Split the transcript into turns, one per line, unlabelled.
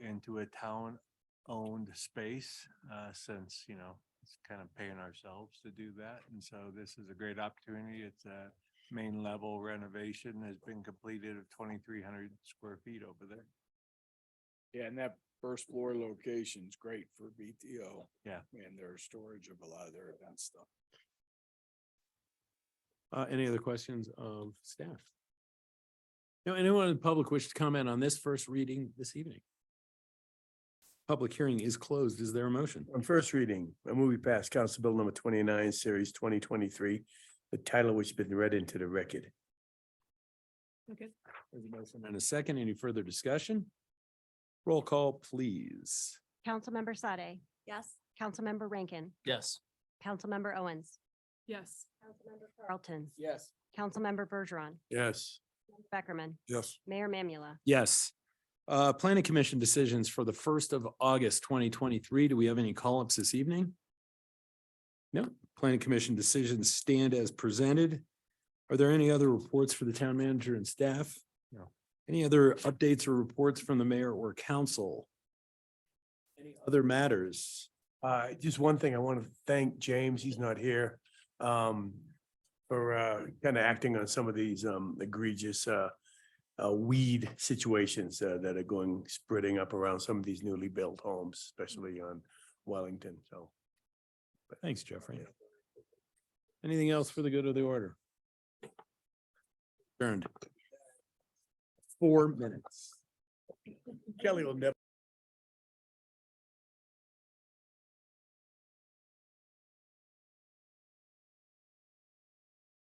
into a town-owned space, uh, since, you know, it's kind of paying ourselves to do that. And so this is a great opportunity. It's a main level renovation has been completed of twenty-three hundred square feet over there.
Yeah, and that first floor location's great for BTO.
Yeah.
And their storage of a lot of their event stuff.
Uh, any other questions of staff? No, anyone in the public wish to comment on this first reading this evening? Public hearing is closed. Is there a motion?
On first reading, a movie passed Council Bill number twenty-nine, series twenty twenty-three, the title which has been read into the record.
There's a motion And a second, any further discussion? Roll call, please.
Councilmember Sade. Yes. Councilmember Rankin.
Yes.
Councilmember Owens.
Yes.
Carlton.
Yes.
Councilmember Bergeron.
Yes.
Beckerman.
Yes.
Mayor Mamula.
Yes. Uh, planning commission decisions for the first of August twenty twenty-three. Do we have any call-ups this evening? No, planning commission decisions stand as presented. Are there any other reports for the town manager and staff?
No.
Any other updates or reports from the mayor or council? Any other matters?
Uh, just one thing, I want to thank James, he's not here, um, for, uh, kind of acting on some of these, um, egregious, uh, uh, weed situations, uh, that are going spreading up around some of these newly built homes, especially on Wellington, so.
Thanks, Jeffrey. Anything else for the good of the order? Turned. Four minutes.
Kelly will never